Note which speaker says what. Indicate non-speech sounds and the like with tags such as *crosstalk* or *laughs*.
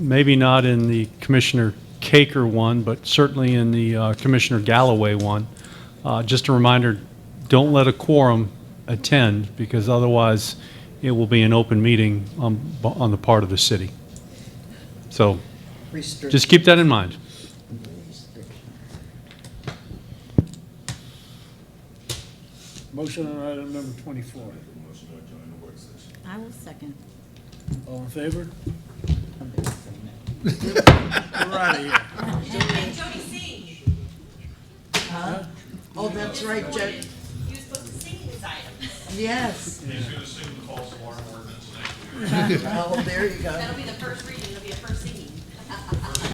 Speaker 1: maybe not in the Commissioner Caker one, but certainly in the uh, Commissioner Galloway one. Uh, Just a reminder, don't let a quorum attend, because otherwise it will be an open meeting on, on the part of the city. So
Speaker 2: Restrict-
Speaker 1: just keep that in mind.
Speaker 3: Motion on item number 24.
Speaker 2: I will second.
Speaker 3: All in favor?
Speaker 2: Somebody say no.
Speaker 3: We're out of here.
Speaker 4: And Jody sing.
Speaker 2: Oh, that's right, Jody.
Speaker 4: He was supposed to sing these items.
Speaker 2: Yes.
Speaker 5: He's gonna sing the false alarm ordinance next year.
Speaker 2: *laughs* Oh, there you go.
Speaker 4: That'll be the first reading, it'll be a first singing